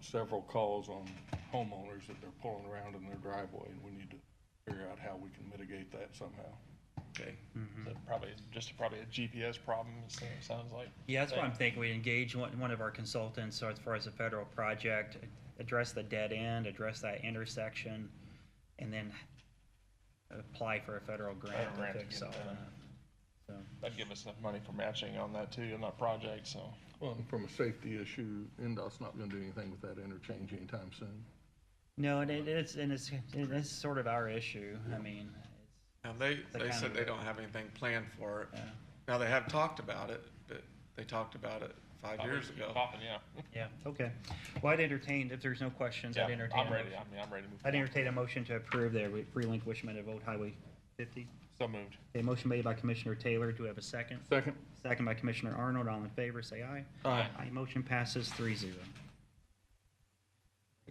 several calls on homeowners that they're pulling around in their driveway, and we need to figure out how we can mitigate that somehow. Okay, Mm-hmm. so probably, just probably a GPS problem, it sa- sounds like. Yeah, that's what I'm thinking. We engage one, one of our consultants, so as far as a federal project, address the dead end, address that intersection, and then apply for a federal grant to grant to fix get all it done. that. So, That'd give us enough money for matching on that too, on that project, so. Well, and from a safety issue, NDOT's not gonna do anything with that interchange anytime soon. No, and it is, and it's, and it's sort of our issue. I mean, Now, they, The they county said they road. don't have anything planned for it. Yeah. Now, they have talked about it, but they talked about it five probably years keep ago. popping, Yeah, yeah, okay. Well, I'd entertain, if there's no questions, yeah, I'd entertain. a I'm ready, motion. I mean, I'm ready to move. I'd forward. entertain a motion to approve the re- relinquishment of Old Highway 50. So moved. A motion made by Commissioner Taylor. Do we have a second? Second? Second by Commissioner Arnold. All in favor, say aye. Aye. Aye, motion passes three zero.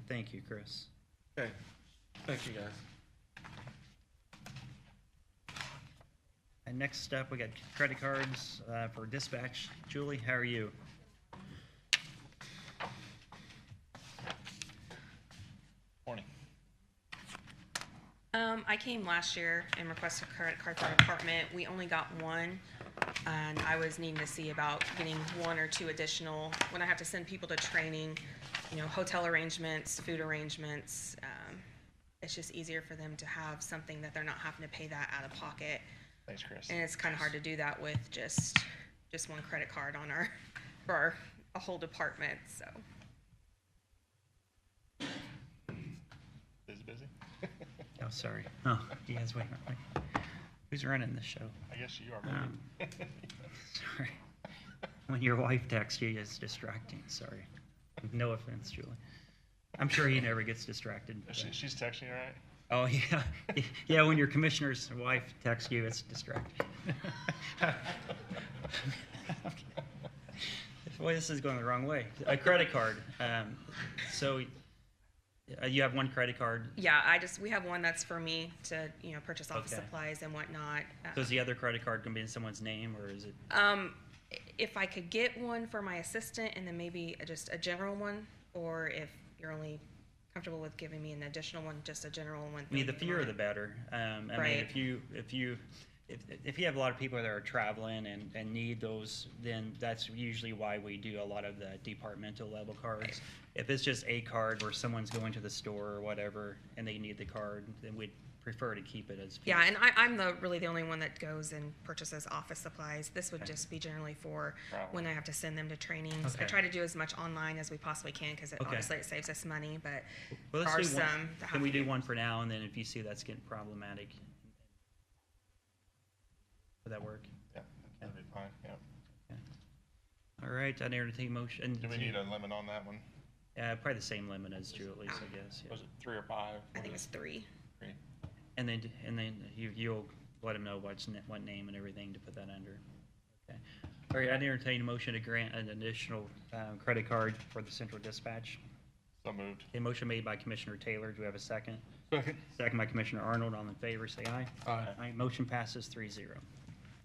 Thank you, Chris. Okay, thank you, guys. And next up, we got credit cards uh, for dispatch. Julie, how are you? Morning. Um, I came last year and requested a credit card for an apartment. We only got one. And I was needing to see about getting one or two additional, when I have to send people to training, you know, hotel arrangements, food arrangements. Um, it's just easier for them to have something that they're not having to pay that out of pocket. Thanks, Chris. And it's kind of hard to do that with just, just one credit card on our, for our, a whole department, so. Busy, busy? Oh, sorry. Oh, you guys wait. a minute. Who's running the show? I guess you are, Um, maybe. Sorry. When your wife texts you, it's distracting. Sorry. No offense, Julie. I'm sure he never gets distracted. but- She, she's texting, you, right? Oh, yeah. Yeah, when your commissioner's wife texts you, it's distracting. Boy, this is going the wrong way. A credit card. Um, so uh, you have one credit card. Yeah, I just, we have one that's for me to, you know, purchase office Okay. supplies and whatnot. Uh, So is the other credit card going to be in someone's name or is it? Um, if I could get one for my assistant and then maybe a- just a general one, or if you're only comfortable with giving me an additional one, just a general one. I mean, the that'd be fewer fine. the better. Um, I mean, Right. if you, if you, if, if you have a lot of people that are traveling and, and need those, then that's usually why we do a lot of the departmental level cards. If it's just a card where someone's going to the store or whatever and they need the card, then we'd prefer to keep it as. Yeah, and I, I'm the, really the only one that goes and purchases office supplies. This would just be generally for Travel. when I have to send them to trainings. I Okay. try to do as much online as we possibly can, because it Okay. obviously it saves us money, but Well, there let's are do some. one- that have Can we to do one for now and then if you see that's getting problematic? Would that work? Yeah, that'd be fine, yeah. All right, I entertain a motion. Do we need a limit on that one? Uh, probably the same limit as Julie's, I guess. yeah. Was it three or five? I What think is it's three. it? Three. And then, and then you, you'll let them know what's, ne- what name and everything to put that under. Okay. All right, I'd entertain a motion to grant an additional, um, credit card for the central dispatch. So moved. A motion made by Commissioner Taylor. Do we have a second? Second? Second by Commissioner Arnold. All in favor, say aye. Aye. Aye, motion passes three zero.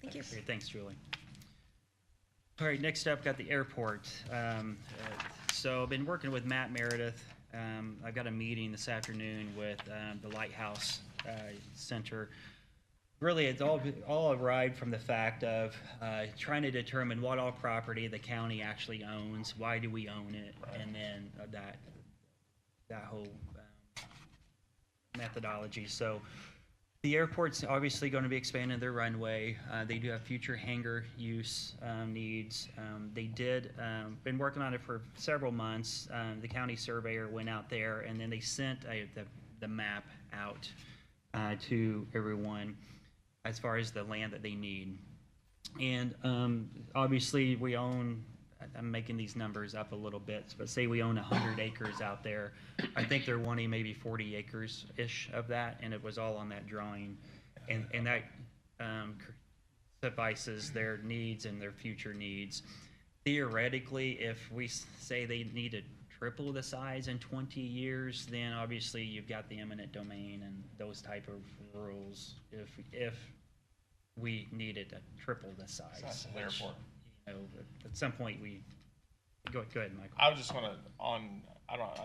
Thank you. Great, thanks, Julie. All right, next up, got the airport. Um, uh, So I've been working with Matt Meredith. Um, I've got a meeting this afternoon with um, the Lighthouse uh, Center. Really, it's all, all arrived from the fact of uh, trying to determine what all property the county actually owns, why do we own it, and then uh, that, that whole um, methodology. So the airport's obviously going to be expanding their runway. Uh, they do have future hangar use um, needs. Um, they did um, been working on it for several months. Um, the county surveyor went out there, and then they sent a, the the map out uh, to everyone as far as the land that they need. And um, obviously, we own, I'm making these numbers up a little bit, but say we own 100 acres out there. I think they're wanting maybe 40 acres-ish of that, and it was all on that drawing. And, and that um, cr- suffices their needs and their future needs. Theoretically, if we s- say they need to triple the size in 20 years, then obviously you've got the eminent domain and those type of rules. If, if we needed to triple the size. Size of the which, airport. You know, at some point, we Go, go ahead, Michael. I was just want to on I don't I